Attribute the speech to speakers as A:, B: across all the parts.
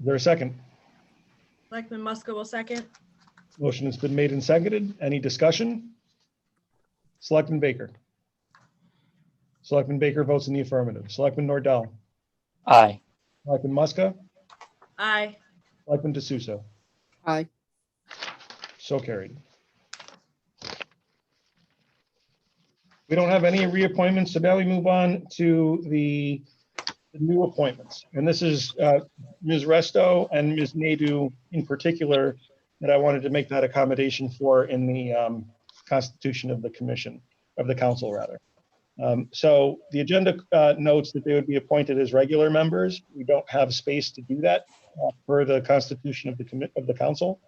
A: Is there a second?
B: Selectman Muska will second.
A: Motion has been made and seconded. Any discussion? Selectman Baker. Selectman Baker votes in the affirmative. Selectman Nordell.
C: Aye.
A: Selectman Muska.
B: Aye.
A: Selectman D'Souza.
D: Aye.
A: So carried. We don't have any reappointments, so now we move on to the the new appointments. And this is uh, Ms. Resto and Ms. Nadu in particular that I wanted to make that accommodation for in the um, constitution of the commission, of the council, rather. Um, So the agenda uh, notes that they would be appointed as regular members. We don't have space to do that uh, per the constitution of the commit, of the council.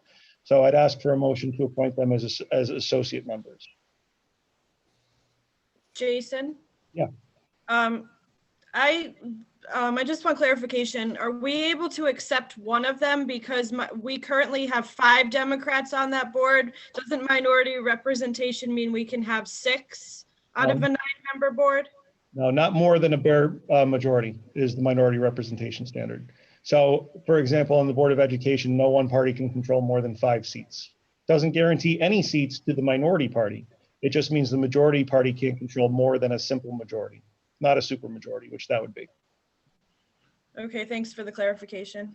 A: So I'd ask for a motion to appoint them as, as- as associate members.
B: Jason?
A: Yeah.
B: Um, I, um, I just want clarification. Are we able to accept one of them? Because my, we currently have five Democrats on that board. Doesn't minority representation mean we can have six out of a nine-member board?
A: No, not more than a bare uh, majority is the minority representation standard. So for example, on the Board of Education, no one party can control more than five seats. Doesn't guarantee any seats to the minority party. It just means the majority party can't control more than a simple majority, not a supermajority, which that would be.
B: Okay, thanks for the clarification.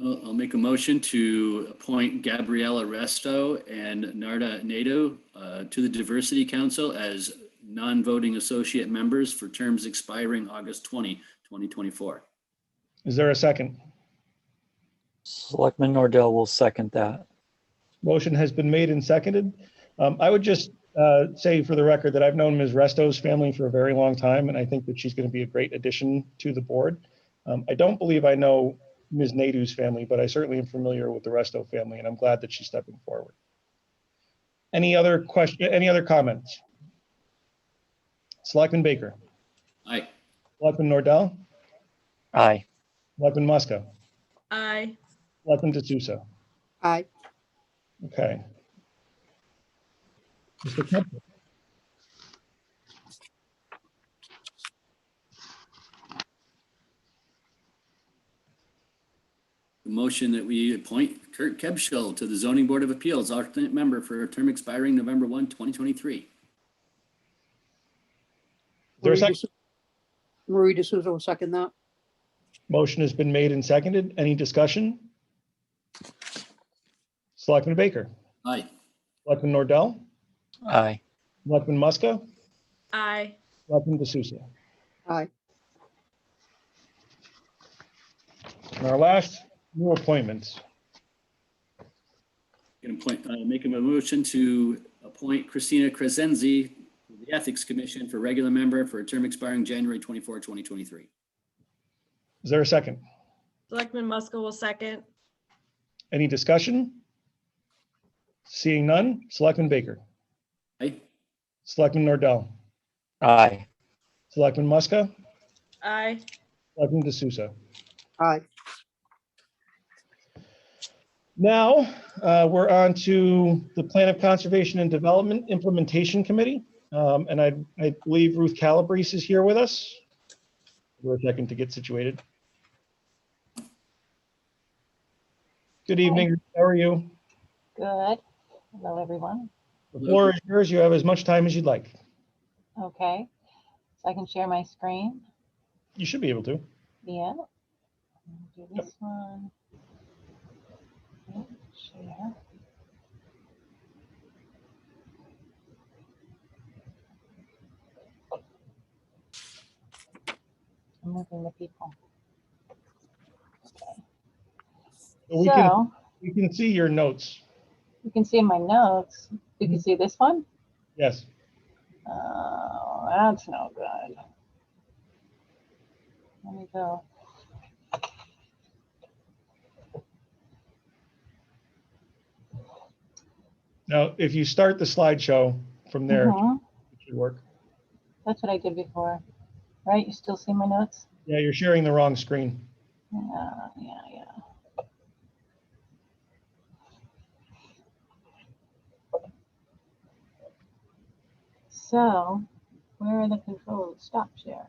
E: I'll I'll make a motion to appoint Gabriella Resto and Narda Nato uh, to the Diversity Council as non-voting associate members for terms expiring August 20, 2024.
A: Is there a second?
C: Selectman Nordell will second that.
A: Motion has been made and seconded. Um, I would just uh, say for the record that I've known Ms. Resto's family for a very long time, and I think that she's going to be a great addition to the board. Um, I don't believe I know Ms. Nadu's family, but I certainly am familiar with the Resto family, and I'm glad that she's stepping forward. Any other question, any other comments? Selectman Baker,
E: Aye.
A: Selectman Nordell,
C: Aye.
A: Selectman Muska,
B: Aye.
A: Selectman D'Souza.
D: Aye.
A: Okay. Mr. Kemper.
E: The motion that we appoint Kurt Kebschel to the Zoning Board of Appeals, alternate member for a term expiring November 1, 2023.
A: Is there a
D: Marie
A: second?
D: De Sou- Marie D'Souza will second that.
A: Motion has been made and seconded. Any discussion? Selectman Baker,
E: Aye.
A: Selectman Nordell,
C: Aye.
A: Selectman Muska,
B: Aye.
A: Selectman D'Souza.
D: Aye.
A: And our last new appointments.
E: Going to point, uh, make a motion to appoint Christina Crescenzi to the Ethics Commission for regular member for a term expiring January 24, 2023.
A: Is there a second?
B: Selectman Muska will second.
A: Any discussion? Seeing none, Selectman Baker,
E: Aye.
A: Selectman Nordell,
C: Aye.
A: Selectman Muska,
B: Aye.
A: Selectman D'Souza.
D: Aye.
A: Now, uh, we're on to the Plan of Conservation and Development Implementation Committee. Um, And I, I believe Ruth Calabrese is here with us. We're a second to get situated. Good evening, how are you?
F: Good. Hello, everyone.
A: The floor is yours, you have as much time as you'd like.
F: Okay. So I can share my screen.
A: You should be able to.
F: Yeah. Let me Do this one. Yeah, Share. I'm moving the people.
A: We can,
F: So
A: we can see your notes,
F: you can see my notes. You
A: Mm-hmm.
F: can see this one.
A: yes.
F: Oh, that's no good. Let me go.
A: Now, if you start the slideshow from there, it
F: Mhm.
A: should work.
F: That's what I did before, right? You still see my notes?
A: Yeah, you're sharing the wrong screen.
F: Yeah, yeah, yeah. So where are the controls? Stop share.